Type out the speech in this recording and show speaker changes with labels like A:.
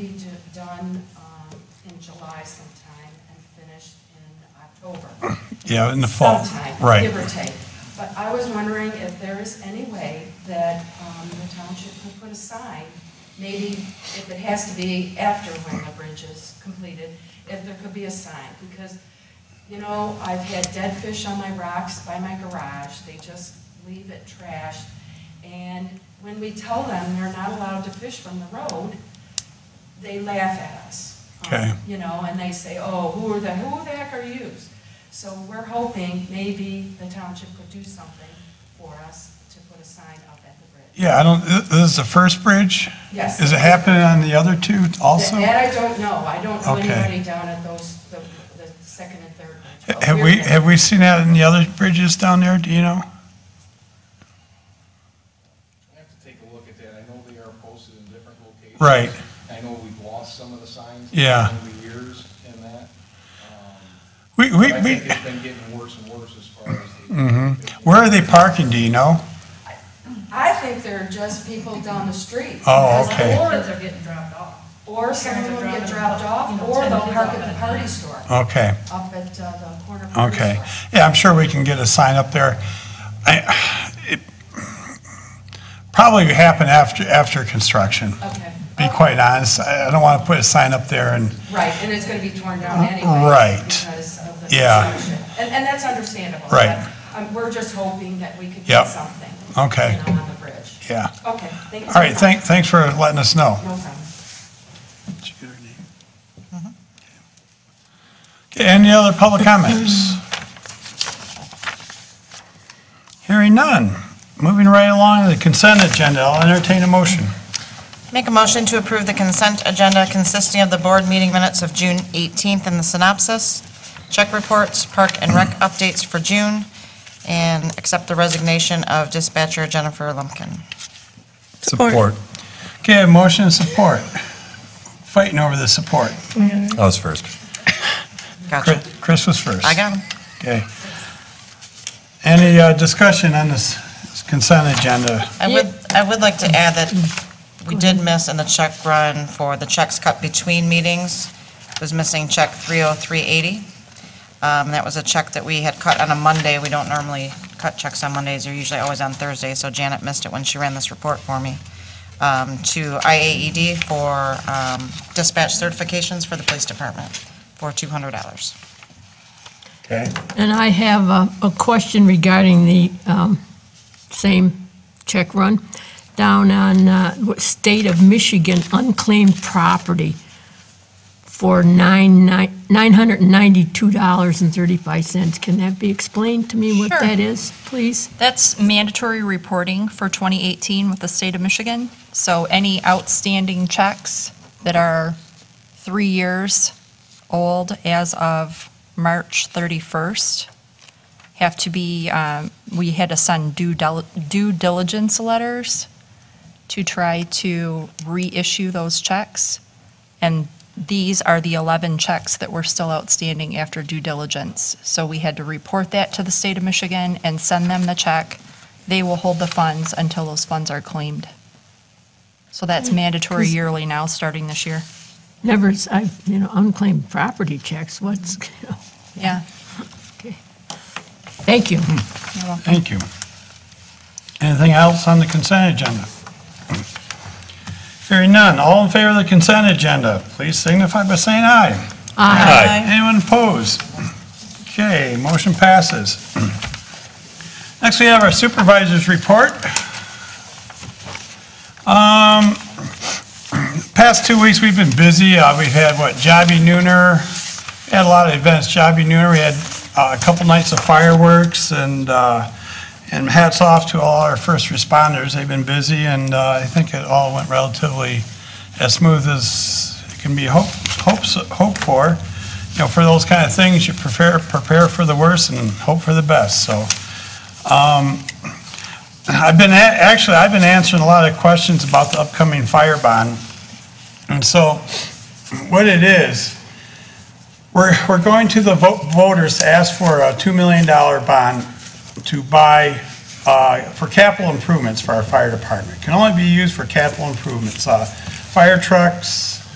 A: it done um, in July sometime and finished in October.
B: Yeah, in the fall.
A: Sometime,
B: Right.
A: Give or take. But I was wondering if there is any way that um, the township could put a sign, maybe if it has to be after when the bridge is completed, if there could be a sign, because, you know, I've had dead fish on my rocks by my garage, they just leave it trashed. And when we tell them they're not allowed to fish from the road, they laugh at us. um,
B: Okay.
A: You know, and they say, oh, who are the, who the heck are yous? So we're hoping maybe the township could do something for us to put a sign up at the bridge.
B: Yeah, I don't, thi- this is the first bridge?
A: Yes.
B: Is it happening on the other two also?
A: That I don't know. I don't know
B: Okay.
A: anybody down at those, the, the second and third bridge. but
B: Have
A: we're
B: we,
A: there.
B: have we seen that in the other bridges down there, do you know?
C: I have to take a look at that. I know they are posted in different locations.
B: Right.
C: I know we've lost some of the signs.
B: Yeah.
C: Over the years and that. Um,
B: We,
C: but
B: we,
C: I
B: we, Mm-hmm.
C: think it's been getting worse and worse as far as the.
B: where are they parking, do you know?
A: I think they're just people down the street.
B: Oh,
A: because-
B: okay.
D: Or if they're getting dropped off.
A: Or someone will get dropped
D: You know,
A: off, or
D: ten
A: they'll
D: kids
A: park
D: off
A: at
D: at
A: the
D: a
A: party
D: time.
A: store,
B: Okay,
A: up at uh, the corner of the party
B: okay.
A: store.
B: Yeah, I'm sure we can get a sign up there. I, it probably happen after, after construction.
A: Okay.
B: Be quite honest, I I don't want to put a sign up there and,
A: Right, and it's going to be torn down anyway.
B: Uh, Right.
A: Because of the
B: Yeah.
A: construction. And, and that's understandable.
B: Right.
A: but, um, We're just hoping that we could get
B: Yep.
A: something.
B: Okay.
A: you know, On the bridge.
B: yeah.
A: Okay, thank you.
B: All right, thank, thanks for letting us know.
A: No problem.
B: Did you get her name? Okay, any other public comments? Hearing none. Moving right along to the consent agenda, I'll entertain a motion.
E: Make a motion to approve the consent agenda consisting of the board meeting minutes of June 18th and the synopsis, check reports, park and rec updates for June, and accept the resignation of dispatcher Jennifer Lumpkin.
B: Support. Okay, a motion and support. Fighting over the support.
F: I was first.
E: Gotcha.
B: Chris Chris was first.
E: I got him.
B: Okay. Any uh, discussion on this consent agenda?
E: I would, I would like to add that we did miss in the check run for the checks cut between meetings, was missing check 30380. Um, That was a check that we had cut on a Monday. We don't normally cut checks on Mondays, they're usually always on Thursdays, so Janet missed it when she ran this report for me, um, to IAED for um, dispatch certifications for the police department for $200.
B: Okay.
G: And I have a, a question regarding the um, same check run down on uh, what- State of Michigan unclaimed property for nine, nine- $992.35. Can that be explained to me what
H: Sure.
G: that is, please?
H: That's mandatory reporting for 2018 with the state of Michigan. So any outstanding checks that are three years old as of March 31st have to be, um, we had to send due dil- due diligence letters to try to reissue those checks. And these are the 11 checks that were still outstanding after due diligence. So we had to report that to the state of Michigan and send them the check. They will hold the funds until those funds are claimed. So that's mandatory yearly now, starting this year.
G: Never, s- I, you know, unclaimed property checks, what's,
H: Yeah.
G: thank you.
H: you're welcome.
B: Thank you. Anything else on the consent agenda? Hearing none, all in favor of the consent agenda, please signify by saying aye.
F: Aye.
B: Anyone opposed? Okay, motion passes. Next, we have our supervisor's report. Um, Past two weeks, we've been busy. Uh, We've had, what, Jobby Nooner, had a lot of events. Jobby Nooner, we had uh, a couple nights of fireworks and, uh, and hats off to all our first responders. They've been busy and uh, I think it all went relatively as smooth as it can be hope, hopes, hoped for. You know, for those kind of things, you prepare, prepare for the worst and hope for the best, so. um, I've been, a- actually, I've been answering a lot of questions about the upcoming fire bond. And so, what it is, we're, we're going to the vo- voters to ask for a $2 million bond to buy, uh, for capital improvements for our fire department. Can only be used for capital improvements, uh, fire trucks,